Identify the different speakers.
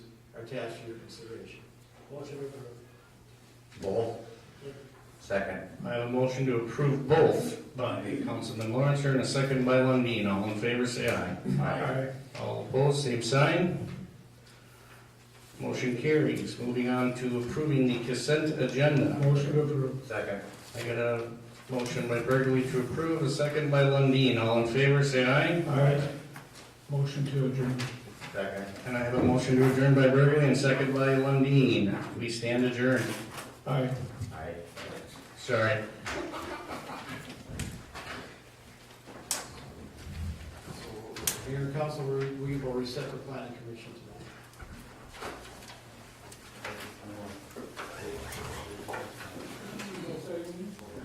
Speaker 1: attached for your consideration.
Speaker 2: Motion approved.
Speaker 3: Both? Second.
Speaker 1: I have a motion to approve both by Councilman Lawrence and a second by Lundin. All in favor, say aye.
Speaker 3: Aye.
Speaker 1: All opposed, same sign. Motion carries. Moving on to approving the consent agenda.
Speaker 2: Motion approved.
Speaker 3: Second.
Speaker 1: I got a motion by Burgley to approve, a second by Lundin. All in favor, say aye.
Speaker 2: Aye. Motion to adjourn.
Speaker 3: Second.
Speaker 1: And I have a motion to adjourn by Burgley and second by Lundin. We stand adjourned.
Speaker 2: Aye.
Speaker 3: Aye.
Speaker 1: Sorry.
Speaker 4: Mayor and council, we we will reset the planning commission tonight.